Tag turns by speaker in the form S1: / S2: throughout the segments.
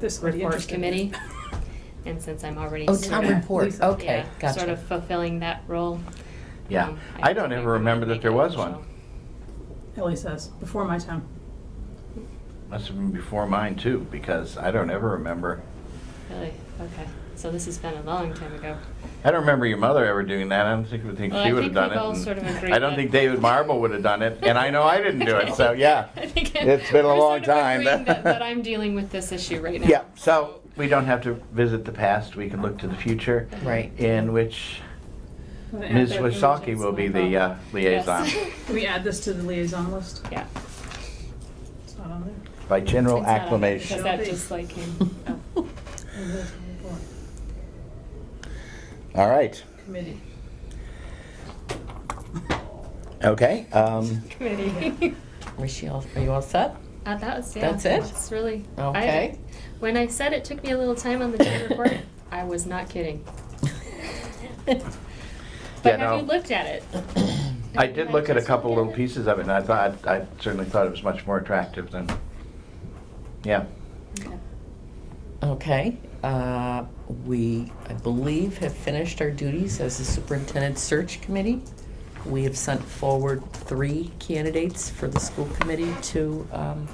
S1: This will be
S2: report
S1: interesting.
S2: committee. And since I'm already
S3: Oh,
S2: sort
S3: town
S2: of-
S3: report,
S1: Lisa.
S3: okay,
S2: yeah,
S3: gotcha.
S2: Sort of fulfilling that role.
S4: Yeah.
S2: um,
S4: I don't
S2: think
S4: ever
S2: we
S4: remember
S2: need to
S4: that there
S2: make it
S4: was one.
S2: official.
S1: Ellie says, before my time.
S4: Must have been before mine too, because I don't ever remember.
S2: Really? Okay. So this has been a long time ago.
S4: I don't remember your mother ever doing that. I don't think, would think
S2: Well,
S4: she
S2: I
S4: would have
S2: think
S4: done
S2: we've
S4: it.
S2: all
S4: and
S2: sort of agreed
S4: I don't
S2: that-
S4: think David Marble would have done it, and I know I didn't do it. So yeah,
S2: I think
S4: it's been a
S2: we're sort
S4: long
S2: of
S4: time.
S2: agreeing that, that I'm dealing with this issue right now.
S4: yeah. So we don't have to visit the past. We can look to the future,
S3: Right.
S4: in which
S1: Wanna add
S4: Ms.
S1: that?
S4: Wasaki will be the uh, liaison
S2: Yes.
S1: Can we add this to the liaison list?
S2: yeah.
S1: It's not on there.
S4: by general
S2: It's not on-
S4: acclamation.
S2: Because that just like came up.
S1: Liaison report,
S4: All right.
S1: Committee.
S4: Okay. Um,
S2: committee.
S3: Was she all, are you all set?
S2: Uh, that was, yeah.
S3: That's it?
S2: It's really. I-
S3: Okay.
S2: When I said it took me a little time on the town report, I was not kidding.
S4: Yeah,
S2: But
S4: no.
S2: have you looked at it?
S4: I did look at a
S2: just
S4: couple
S2: looked
S4: little
S2: it?
S4: pieces of it, and I thought, I certainly thought it was much more attractive than, yeah.
S2: Okay.
S3: Okay, uh, we, I believe, have finished our duties as the superintendent search committee. We have sent forward three candidates for the school committee to um,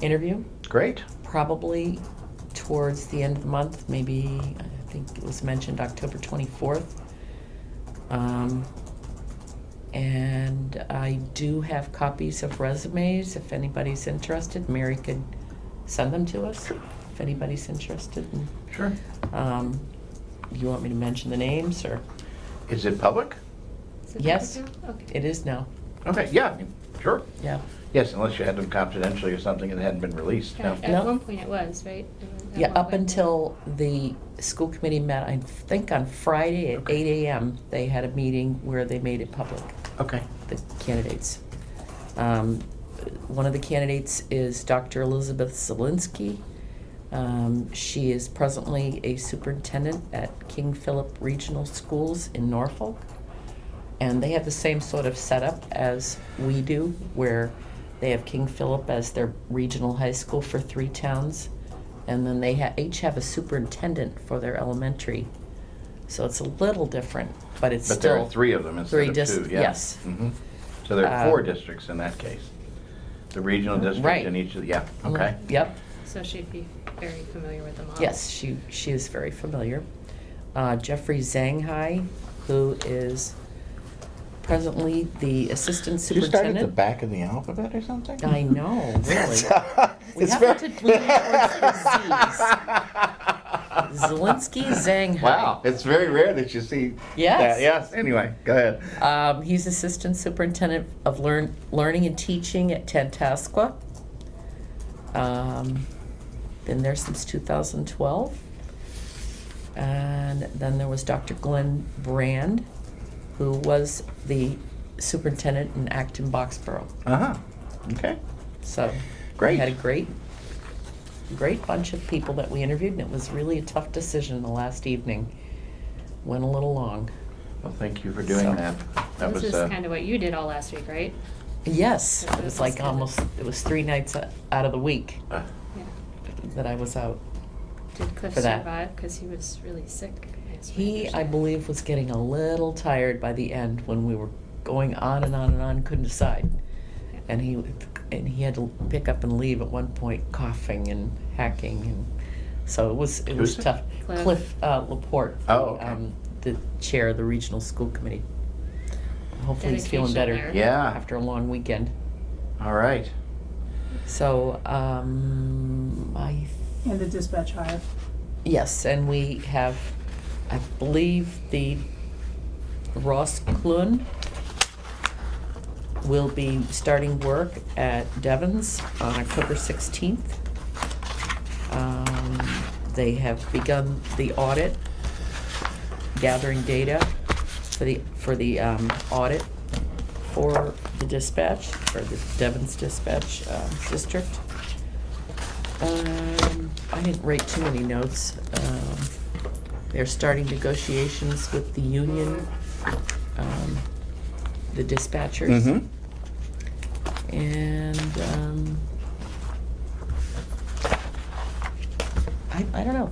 S3: interview,
S4: Great.
S3: probably towards the end of the month, maybe, I think it was mentioned October 24th. Um, And I do have copies of resumes, if anybody's interested, Mary could send them to us, if anybody's interested. in-
S4: Sure.
S3: um, You want me to mention the names, or?
S4: Is it public?
S2: Is it
S3: Yes.
S2: public now? Okay.
S3: It is now,
S4: Okay, yeah, sure.
S3: yeah.
S4: Yes, unless you had them confidentially or something that hadn't been released,
S2: Yeah,
S4: no.
S2: At
S3: No.
S2: one point it was, right? At
S3: Yeah,
S2: one
S3: up
S2: point.
S3: until the school committee met, I think on Friday at
S4: Okay.
S3: eight AM, they had a meeting where they made it public,
S4: Okay,
S3: the candidates. Um, One of the candidates is Dr. Elizabeth Zelinsky. Um, She is presently a superintendent at King Philip Regional Schools in Norfolk. And they have the same sort of setup as we do, where they have King Philip as their regional high school for three towns. And then they ha- each have a superintendent for their elementary. So it's a little different, but it's
S4: but there
S3: still.
S4: are three of them
S3: three
S4: instead of
S3: dis-
S4: two, yeah.
S3: yes.
S4: Mhm. So there are four
S3: Um,
S4: districts in that case. The regional district
S3: Right. Mm-hmm.
S4: and each of, yeah, okay.
S3: Yep.
S2: So she'd be very familiar with the model.
S3: Yes, she, she is very familiar. Uh, Jeffrey Zanghai, who is presently the assistant
S4: Did you start at the
S3: superintendent.
S4: back of the alphabet or something?
S3: I know, really. We
S4: It's
S3: have
S4: very-
S3: to lean towards the Zs. Zelensky Zanghai.
S4: Wow, it's very rare that you see.
S3: Yes.
S4: that. Yes. Anyway, go ahead.
S3: Um, he's assistant superintendent of learn, learning and teaching at Tantasqua. Um, been there since 2012. And then there was Dr. Glenn Brand, who was the superintendent in Acton Boxborough.
S4: Uh huh. Okay.
S3: So we
S4: Great.
S3: had a great, great bunch of people that we interviewed, and it was really a tough decision the last evening. Went a little long.
S4: Well, thank you for doing
S3: So-
S4: that.
S2: This
S4: That was
S2: is
S4: uh,
S2: kind of what you did all last week, right?
S3: Yes,
S2: That's-
S3: it was
S2: that's
S3: like
S2: good.
S3: almost, it was three nights o- out of the week
S4: uh,
S2: Yeah.
S3: that I was out.
S2: Did Cliff
S3: For that.
S2: survive? Because he was really sick. as we
S3: He, I
S2: understand.
S3: believe, was getting a little tired by the end when we were going on and on and on, couldn't decide.
S2: Yeah.
S3: And he, and he had to pick up and leave at one point coughing and hacking and, so it was, it was
S4: Who's it?
S3: tough.
S2: Cliff.
S3: Cliff uh, Laporte.
S4: Oh, okay.
S3: um, The chair of the regional school committee. Hopefully he's feeling
S2: Dedication
S3: better
S2: there.
S4: yeah.
S3: after a long weekend.
S4: All right.
S3: So, um, I
S1: And the dispatch hire.
S3: Yes, and we have, I believe the Ross Clun will be starting work at Devon's on October 16th. Um, They have begun the audit, gathering data for the, for the um, audit for the dispatch, for the Devon's dispatch um, district. Um, I didn't write too many notes. Um, They're starting negotiations with the union, um, the dispatchers.
S4: Mhm.
S3: And um, I, I don't know,